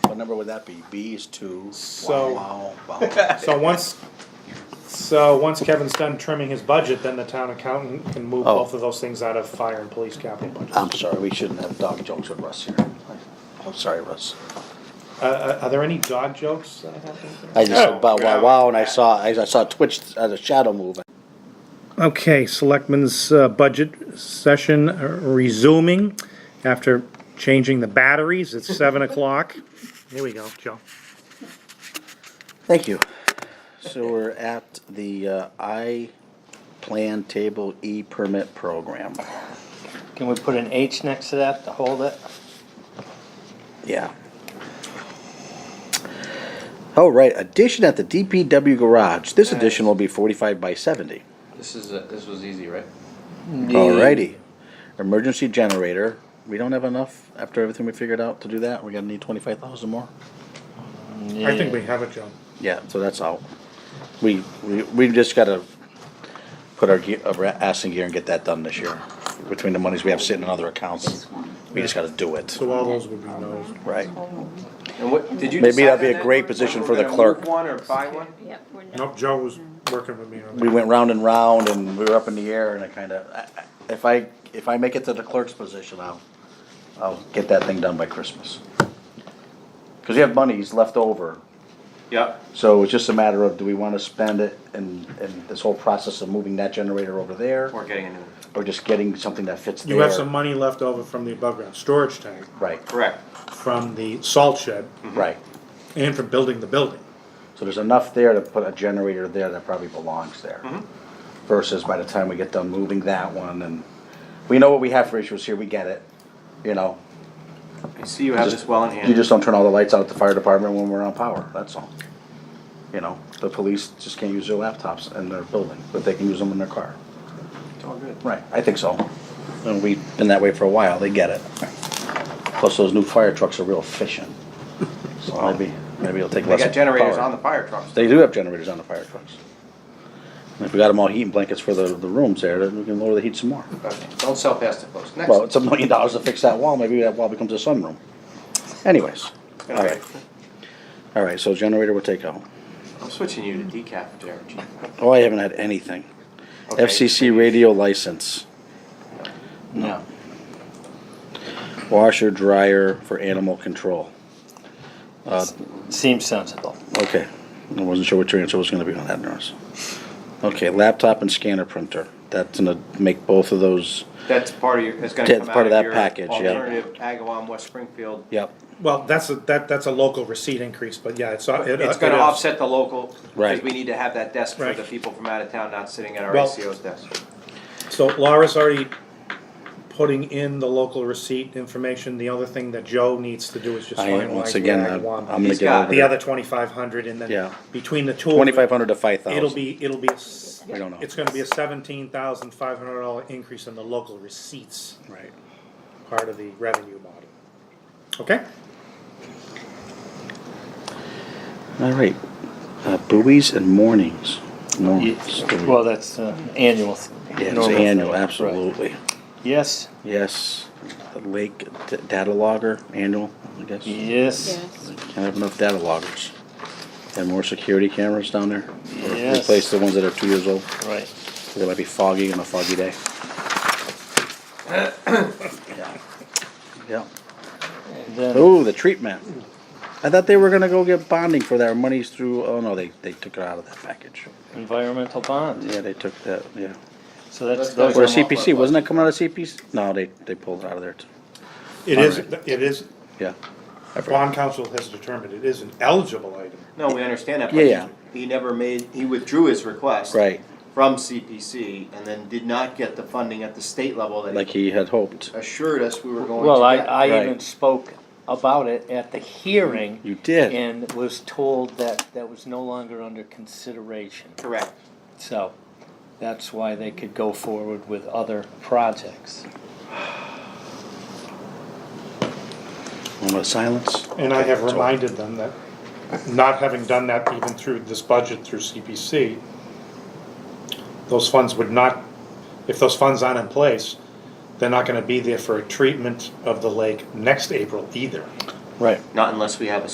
number would that be? B is two. So- Wow, wow, wow. So once, so once Kevin's done trimming his budget, then the town accountant can move Oh. both of those things out of fire and police capital budget. I'm sorry, we shouldn't have dog jokes with Russ here. I'm sorry, Russ. Uh, Uh, are there any dog jokes that have happened? here? I just Oh, said, wow, wow, God. wow, and I saw, I I saw Twitch as a shadow moving. Okay, Selectmen's uh, budget session uh, resuming after changing the batteries. It's seven o'clock. Here we go, Joe. Thank you. So we're at the uh, I Plan Table E Permit Program. Can we put an H next to that to hold it? Yeah. Oh, right, addition at the DPW garage. This addition will be forty-five by seventy. This is, a- this was easy, right? Mm, Alrighty. Emergency generator. We don't have enough after everything we figured out to do that. We're gonna need twenty-five thousand more. I think we have it, Joe. Yeah, so that's all. We, we, we've just gotta put our, ge- our ass in gear and get that done this year. Between the monies we have sitting in other accounts, we just gotta do it, So all those would be no's. right? And what, did you Maybe decide that'd be on a that great one? position We're for the gonna clerk. move one or buy one? Yep, we're not. Nope, Joe was working with me on We that. went round and round and we were up in the air and I kinda, I- I- if I, if I make it to the clerk's position, I'll, I'll get that thing done by Christmas. Cause we have monies left over, Yep. so it's just a matter of, do we wanna spend it and, and this whole process of moving that generator over there? We're getting a new one. Or just getting something that fits there? You have some money left over from the above ground storage tank, Right, Correct. from the salt shed, right. and from building the building. So there's enough there to put a generator there that probably belongs there. Mm-hmm. Versus by the time we get done moving that one and, we know what we have for issues here, we get it, you know? I see you have Just- this well in You hand. just don't turn all the lights out at the fire department when we're on power, that's all. You know, the police just can't use their laptops in their building, but they can use them in their car. It's all good. Right, I think so. And we've been that way for a while, they get it. Plus, those new fire trucks are real efficient. So maybe, maybe it'll take They less. got generators power. on the fire trucks. They do have generators on the fire trucks. And if we got them all heating blankets for the, the rooms there, then we can lower the heat some more. Okay, Don't sell past the post. Next. Well, it's a million dollars to fix that wall, maybe that wall becomes a sunroom. Anyways, all right. All right, so generator will take out. I'm switching you to decaf, Jared. Oh, I haven't had anything. Okay. FCC radio license, No. washer, dryer for animal control. Seems sensible. Okay, I wasn't sure what your answer was gonna be on that, Norris. Okay, laptop and scanner printer, that's gonna make both of those, That's part of your, it's gonna That's come part of out of that your package, yeah. alternative Agawam, West Springfield. yep, Well, that's a, that, that's a local receipt increase, but yeah, it's. uh, it- It's it gonna is. offset the local, because Right. we need to have that desk for Right. the people from out of town not sitting at our Well- ACO's desk. So Laura's already putting in the local receipt information. The other thing that Joe needs to do is just I, finalize. once again, where I I'm want I'm gonna He's get got over. The other twenty-five hundred and then Yeah. between the two. of them, Twenty-five hundred to five thousand. It'll be, it'll be, a s- I don't know. it's gonna be a seventeen thousand five hundred dollar increase in the local receipts Right. part of the revenue model. Okay? All right, uh, buoys and moorings. Moorings. Well, that's uh, annual. Mm. Yeah, it's normal thing. annual, Right. absolutely. Yes, Yes, the lake d- data logger, annual, I guess. yes, Yes. Can't have enough data loggers. And more security cameras down there. Or Yes. Replace the ones that are two years old, right. they might be foggy on a foggy day. Yeah. Yeah. And Then, Oh, the treatment. I thought they were gonna go get bonding for their monies through, oh no, they, they took it out of that package. environmental bond, Yeah, they took that, yeah. so that's, That's good. those Or are, Well, CPC, wasn't that coming out of CPC? No, they, they pulled it out of there too. It is, it is, Yeah. bond council has determined it is an eligible item. No, we understand that, Yeah, yeah. but he never made, he withdrew his request. Right, From CPC and then did not get the funding at the state level that like he he had hoped. assured us we were going to well, I, get. I Right. even spoke about it at the hearing You did. and was told that that was no longer under consideration. Correct. So that's why they could go forward with other projects. Moment of silence. And I have reminded them that, not having done that even through this budget through CPC, those funds would not, if those funds aren't in place, they're not gonna be there for a treatment of the lake next April either. Right. Not unless we have a